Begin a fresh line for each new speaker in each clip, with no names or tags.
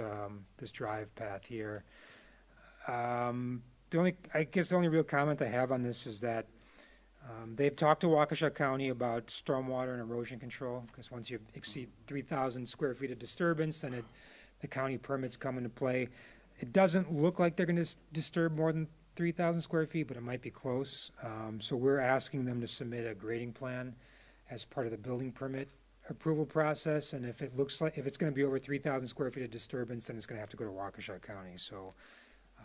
um, this drive path here. Um, the only, I guess the only real comment I have on this is that, um, they've talked to Waukesha County about stormwater and erosion control, because once you exceed three thousand square feet of disturbance, then it, the county permits come into play. It doesn't look like they're gonna s- disturb more than three thousand square feet, but it might be close. Um, so we're asking them to submit a grading plan as part of the building permit approval process, and if it looks like, if it's gonna be over three thousand square feet of disturbance, then it's gonna have to go to Waukesha County, so,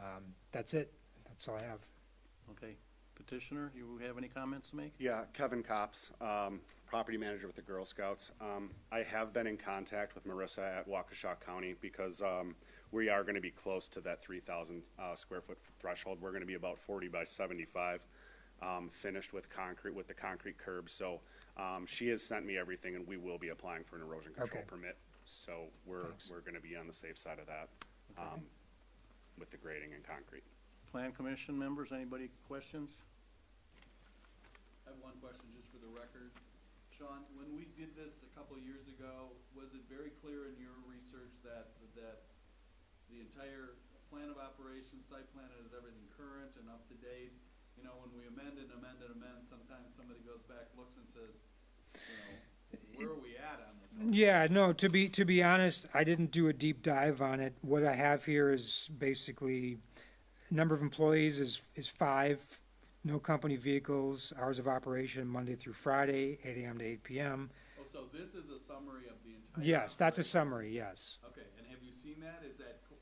um, that's it, that's all I have.
Okay, petitioner, you have any comments to make?
Yeah, Kevin Cops, um, property manager with the Girl Scouts. Um, I have been in contact with Marissa at Waukesha County because, um, we are gonna be close to that three thousand, uh, square foot threshold. We're gonna be about forty by seventy-five, um, finished with concrete, with the concrete curbs. So, um, she has sent me everything and we will be applying for an erosion control
Okay.
permit. So we're,
Thanks.
we're gonna be on the safe side of that, um, with the grading and concrete.
Plan commission members, anybody questions?
I have one question just for the record. Sean, when we did this a couple of years ago, was it very clear in your research that, that the entire plan of operations, site plan, is everything current and up to date? You know, when we amend and amend and amend, sometimes somebody goes back, looks and says, you know, where are we at on this?
Yeah, no, to be, to be honest, I didn't do a deep dive on it. What I have here is basically, number of employees is, is five, no company vehicles, hours of operation, Monday through Friday, eight AM to eight PM.
Oh, so this is a summary of the entire.
Yes, that's a
operation.
summary, yes.
Okay, and have you seen that? Is that? cl-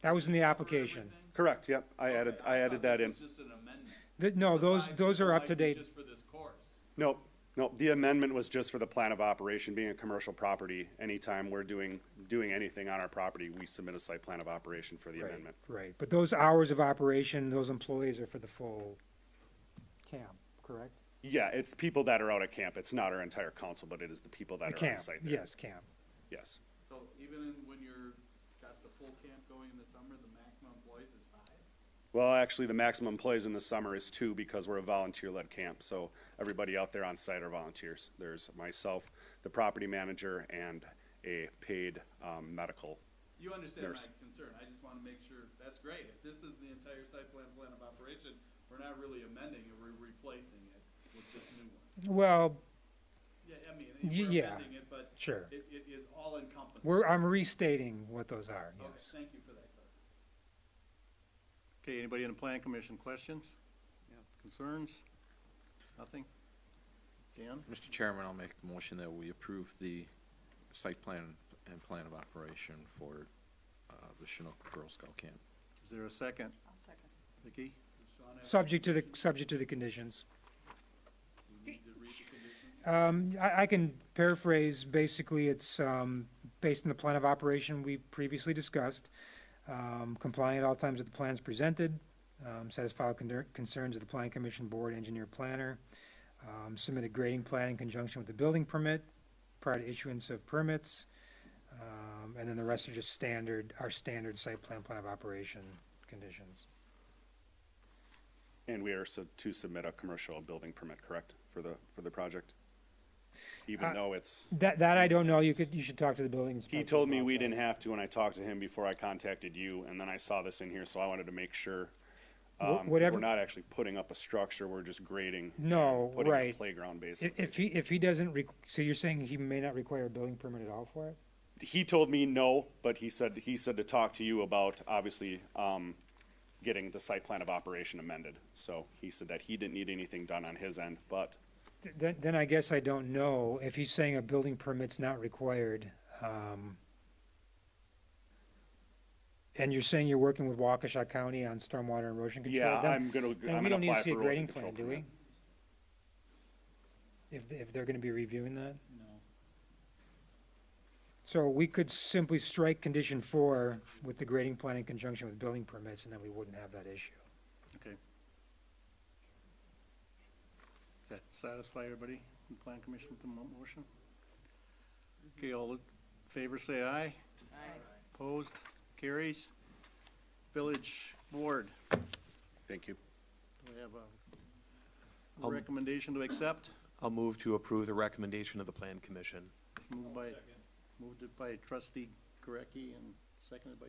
That was in the
cover
application.
everything?
Correct, yep, I
Okay,
added, I
thought
added that
this
in.
was just an amendment.
Th- No, those,
Five
those
people
are up
might
to
be
date.
Just for this course.
Nope, nope, the amendment was just for the plan of operation, being a commercial property, anytime we're doing, doing anything on our property, we submit a site plan of operation for the
Right,
amendment.
Right, but those hours of operation, those employees are for the full camp, correct?
Yeah, it's people that are out at camp, it's not our entire council, but it is the people
The
that are on
camp,
site there.
yes, camp.
Yes,
So even in, when you're, got the full camp going in the summer, the maximum employees is five?
well, actually, the maximum employees in the summer is two, because we're a volunteer-led camp, so everybody out there on site are volunteers. There's myself, the property manager, and a paid, um, medical.
You understand my
Nurse.
concern, I just wanna make sure, that's great, if this is the entire site plan, plan of operation, we're not really amending it, we're replacing it with this new one.
Well,
Yeah, I mean,
Y-
we're
yeah.
amending it, but
sure.
it, it is all encompassing.
We're, I'm restating what those are,
Okay,
yes.
thank you for that, clarif-
Okay, anybody in the plan commission, questions? Concerns? Nothing? Dan,
Mr. Chairman, I'll make the motion that we approve the site plan and plan of operation for uh, the Chinook Girl Scout Camp.
is there a second?
I'll second.
Vicky?
Does Sean have-
Subject to the, subject to the conditions.
Do you need to read the conditions?
Um, I, I can paraphrase, basically, it's, um, based on the plan of operation we previously discussed, um, complying at all times with the plans presented, um, satisfy all con- concerns of the plan commission board, engineer, planner, um, submit a grading plan in conjunction with the building permit prior to issuance of permits, um, and then the rest are just standard, our standard site plan, plan of operation conditions.
And we are su- to submit a commercial building permit, correct, for the, for the project? Even though it's,
That, that Uh, I don't know, you could, you should talk to the building inspector.
he told me
about
we
that.
didn't have to, and I talked to him before I contacted you, and then I saw this in here, so I wanted to make sure.
Wha-
Um, 'cause
whatever-
we're not actually putting up a structure, we're just grading. and
No,
putting a
right.
Playground
If,
basically.
if he, if he doesn't, req- so you're saying he may not require a building permit at all for it?
He told me no, but he said, he said to talk to you about, obviously, um, getting the site plan of operation amended. So he said that he didn't need anything done on his end, but
Th- Then, then I guess I don't know. If he's saying a building permit's not required, um, and you're saying you're working with Waukesha County on stormwater and erosion control?
yeah,
then-
I'm gonna, I'm
Then we
gonna
don't need to
apply
see a
for
grading
erosion
plan, do
control
we?
permit.
If, if they're gonna be reviewing that?
No.
So we could simply strike condition four with the grading plan in conjunction with building permits, and then we wouldn't have that issue.
Okay. Does that satisfy everybody in plan commission with the mo- motion? Okay, all in favor, say aye.
Aye.
Opposed? Carries? Village board,
Thank you.
do we have a recommendation to accept?
I'll move to approve the recommendation of the Plan Commission.
It's moved by, moved it by trustee Gurecki and seconded by